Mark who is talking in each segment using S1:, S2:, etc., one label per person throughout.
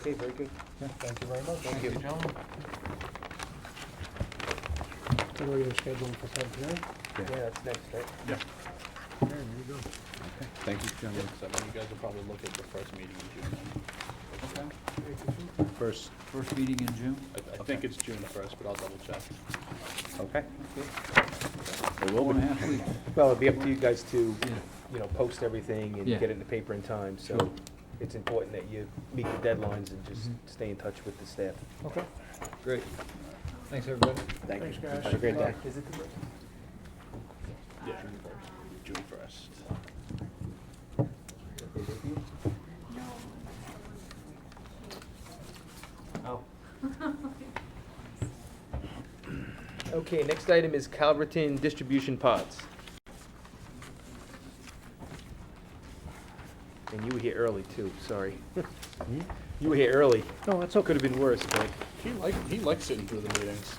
S1: Okay, very good.
S2: Thank you very much.
S1: Thank you.
S3: gentlemen.
S2: What are you scheduling for public hearing?
S1: Yeah, that's next, right?
S2: Yeah, there you go.
S4: Thank you, gentlemen.
S5: So I mean, you guys will probably look at the first meeting in June.
S3: Okay.
S4: First,
S3: First meeting in June?
S5: I, I think it's June the first, but I'll double check.
S4: okay.
S3: It will be. Four and a half weeks.
S1: Well, it'd be up to you guys to,
S3: Yeah.
S1: you know, post everything and
S3: Yeah.
S1: get it in the paper in time, so
S3: Sure.
S1: it's important that you meet the deadlines and just
S3: Mhm.
S1: stay in touch with the staff.
S2: Mm-hmm. Okay,
S3: Great. Thanks, everybody.
S4: Thank you.
S2: thanks, guys.
S4: Have a great day.
S1: Is it the first?
S5: Yeah, June first. June first.
S1: Oh. Okay, next item is Calverton Distribution Pods. And you were here early too, sorry. You were here early.
S2: Hmm? No, that's okay.
S1: Could have been worse, but
S5: He like, he likes sitting through the meetings.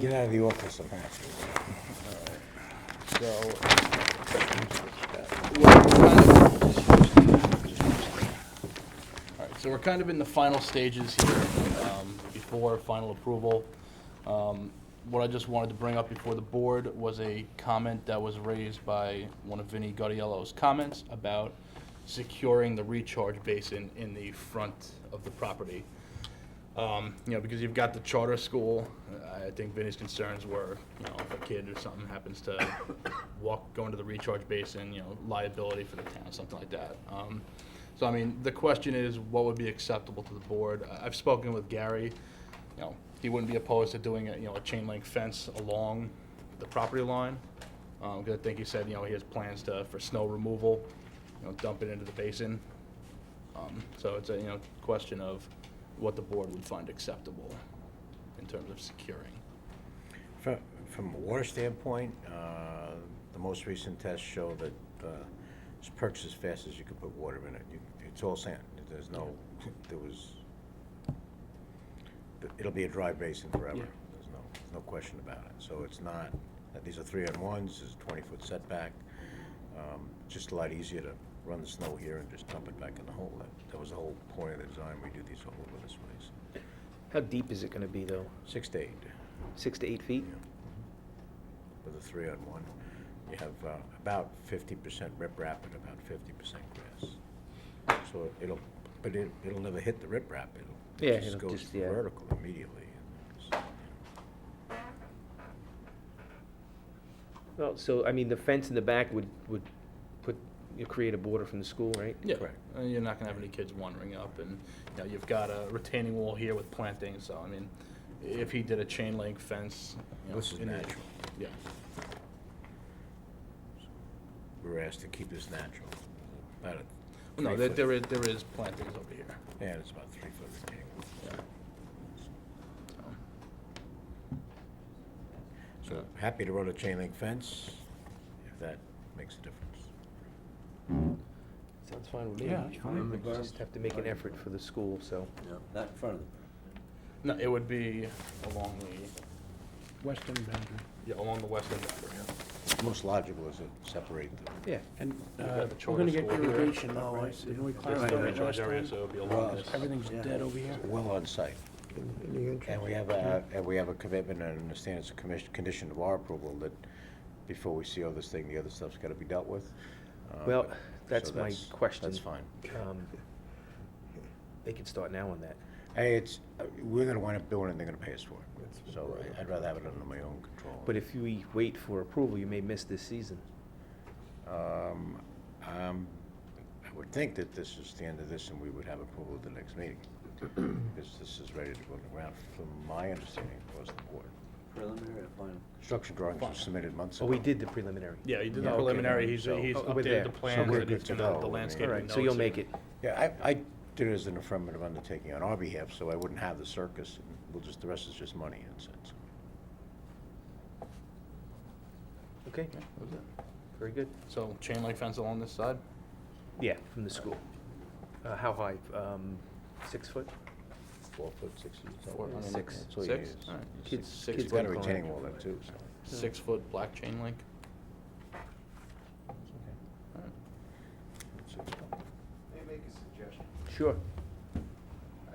S4: Get out of the office, apparently.
S5: So. Alright, so we're kind of in the final stages here, um, before final approval. Um, What I just wanted to bring up before the board was a comment that was raised by one of Vinnie Gaudiello's comments about securing the recharge basin in the front of the property. Um, you know, because you've got the charter school, I think Vinny's concerns were, you know, if a kid or something happens to walk, go into the recharge basin, you know, liability for the town, something like that. Um, so, I mean, the question is, what would be acceptable to the board? I- I've spoken with Gary, you know, he wouldn't be opposed to doing, a you know, a chain link fence along the property line. Um, 'cause I think he said, you know, he has plans to, for snow removal, you know, dump it into the basin. Um, So it's a, you know, question of what the board would find acceptable in terms of securing.
S6: From, from a water standpoint, uh, the most recent tests show that, uh, it's perched as fast as you can put water in it. You- It's all sand. There's no, there was, it'll be a dry basin forever.
S5: Yeah.
S6: There's no, there's no question about it. So it's not, uh, these are three on ones, it's a twenty-foot setback. Um, Just a lot easier to run the snow here and just dump it back in the hole. That- That was the whole point of the design. We do these all over this place.
S1: how deep is it gonna be though?
S6: Six to eight.
S1: Six to eight feet?
S6: With a three on one, you have uh, about fifty percent riprap and about fifty percent grass. So it'll, but it, it'll never hit the riprap, it'll,
S1: Yeah,
S6: it just
S1: it'll
S6: goes
S1: just- yeah.
S6: vertical immediately.
S1: Well, so, I mean, the fence in the back would, would put, you create a border from the school, right?
S5: Yeah,
S6: Correct.
S5: and Uh, you're not gonna have any kids wandering up, and, you know, you've got a retaining wall here with plantings, so, I mean, if he did a chain link fence, you know.
S6: This is
S5: in the-
S6: natural.
S5: Yeah,
S6: We were asked to keep this natural, about a
S5: no, there,
S6: three foot-
S5: there is, there is plantings over here,
S6: Yeah, it's about three foot retaining wall.
S5: yeah. So,
S6: So happy to run a chain link fence, if that makes a difference.
S1: Sounds fine with me.
S4: Yeah, it's fine.
S1: We Just have to make an effort for the school, so.
S4: Not in front of them.
S5: No, it would be along the,
S2: Western boundary.
S5: yeah, along the western boundary, yeah.
S6: Most logical is to separate the
S1: Yeah.
S2: And
S5: We've got
S2: uh,
S5: the
S2: we're
S5: charter
S2: gonna get
S5: school here.
S2: irrigation now, I see. Didn't we
S5: This is the
S2: clarify that
S5: recharge
S2: last
S5: area,
S2: time?
S5: so it would be along this.
S2: Everything's dead over here.
S6: well on site. And we have a, and we have a commitment and understand it's a commission, condition of our approval that before we see all this thing, the other stuff's gotta be dealt with. Uh,
S1: Well,
S6: but- so
S1: that's my question.
S6: That's fine.
S1: Um, They could start now on that.
S6: Hey, it's, uh, we're gonna wind up doing it, they're gonna pay us for it. So I- I'd rather have it under my own control.
S1: But if we wait for approval, you may miss this season.
S6: Um, um, I would think that this is the end of this and we would have approval at the next meeting. Because this is ready to go to ground, from my understanding, across the board.
S4: Preliminary or final?
S6: Construction drawings were
S5: Fine.
S6: submitted months
S1: Oh,
S6: ago.
S1: we did the preliminary.
S5: Yeah, he did
S6: Yeah,
S5: the
S6: okay,
S5: preliminary, he's,
S6: so-
S5: he's
S1: Oh, we're there.
S5: updated the
S1: So
S5: plans,
S6: we're
S5: and
S6: good
S5: he's
S6: to
S5: gonna,
S6: go.
S5: the
S6: I
S1: All
S5: landscaping
S1: right,
S5: notes.
S1: so you'll
S5: and-
S1: make it.
S6: Yeah, I, I did it as an affirmative undertaking on our behalf, so I wouldn't have the circus, and we'll just, the rest is just money, that's it.
S1: Okay,
S5: Yeah, that was it.
S1: very good.
S5: So chain link fence along this side?
S1: Yeah, from the school. Uh, How high? Um, Six foot?
S6: Four foot, six feet.
S5: Four, I mean,
S1: Six.
S6: That's all you
S5: Six?
S6: need is-
S5: All right.
S1: Kids-
S5: Six
S1: kids
S6: It's got a
S1: can climb.
S6: retaining wall there too, so.
S5: Six foot black chain link? All right.
S6: it's- it's-
S1: Sure.